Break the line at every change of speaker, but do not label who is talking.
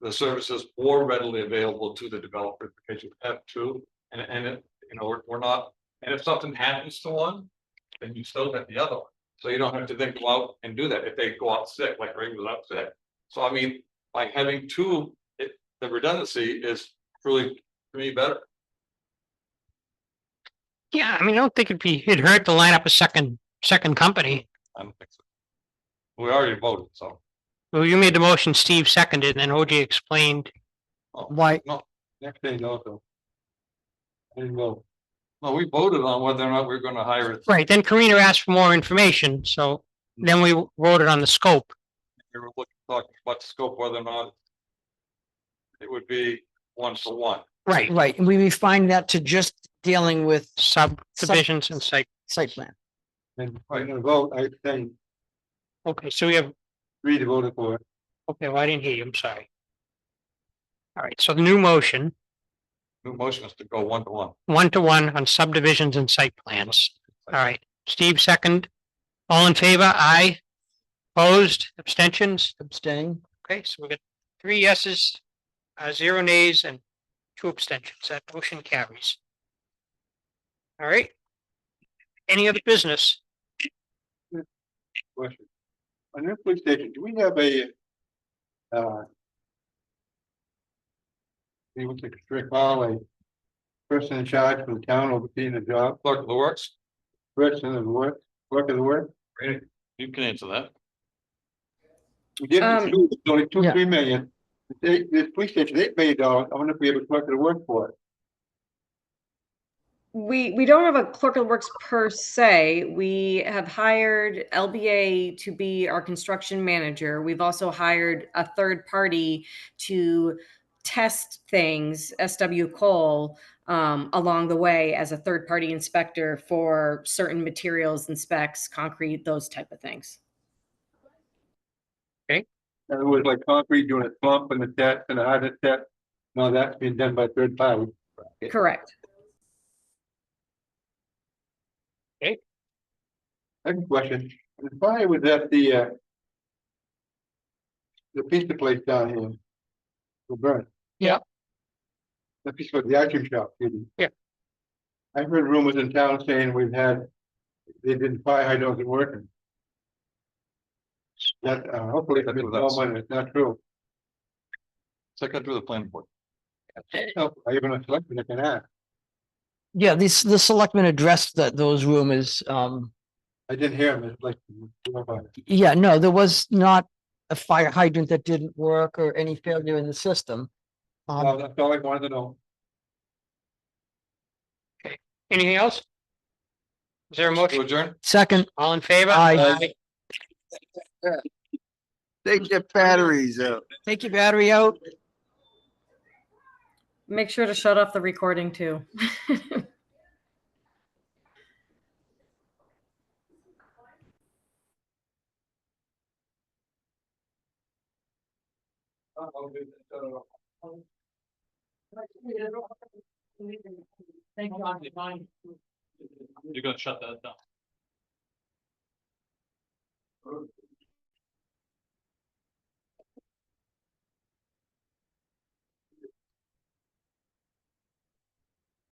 the services more readily available to the developer because you have two. And, and it, you know, we're, we're not, and if something happens to one, then you still have the other one. So you don't have to then go out and do that if they go out sick, like Ray was out sick. So I mean, by having two, it, the redundancy is really, to me, better.
Yeah, I mean, I don't think it'd be, it'd hurt to line up a second, second company.
I don't think so. We already voted, so.
Well, you made the motion, Steve seconded, and then OJ explained.
Why,
Next day, no, though. I didn't vote. No, we voted on whether or not we're gonna hire it.
Right, then Karina asked for more information, so then we voted on the scope.
We were looking, talking about the scope, whether or not. It would be one to one.
Right,
right, and we refined that to just dealing with
subdivisions and site.
site plan.
And I'm gonna vote, I think,
Okay, so we have,
three to vote for it.
okay, well, I didn't hear you, I'm sorry. All right, so the new motion,
New motion is to go one to one.
one to one on subdivisions and site plans. All right, Steve second. All in favor? Aye. Opposed, abstentions?
Abstain.
Okay, so we got three yeses, uh, zero nays and two abstentions. That motion carries. All right. Any other business?
question. On your police station, do we have a, uh, he was a strict file, a person in charge from the town overseeing the job,
Clerk of the works,
person of the work, work of the work?
you can answer that.
We did
Um,
two, it's only two,
Yeah.
three million. This eight- this police station, eight million dollars, I wonder if we have a clerk of the work for it.
We, we don't have a clerk of works per se. We have hired LBA to be our construction manager. We've also hired a third party to test things, SW Cole, um, along the way as a third party inspector for certain materials and specs, concrete, those type of things.
In other words, like concrete doing a slump and a test and a hard test. No, that's being done by third party. Yeah.
Correct.
Second question, the fire was at the, uh, the pizza place down here. The burn.
Yeah.
The pizza, the ice cream shop, excuse me.
Yeah.
I've heard rumors in town saying we've had, they didn't fire hydrants working. That, uh, hopefully,
That
that's
was us.
it's not true.
Second through the planning board.
No, Oh, I even a selectman that can ask.
Yeah, this, the selectmen addressed that, those rumors. Um,
I didn't hear him, it's like, you know, about it.
yeah, no, there was not a fire hydrant that didn't work or any failure in the system.
Well,
Um,
that's all I wanted to know.
Anything else? Is there a
To
motion?
adjourn?
second,
All in favor?
Aye.
Take your batteries out.
take your battery out.
Make sure to shut off the recording too.
You're gonna shut that down.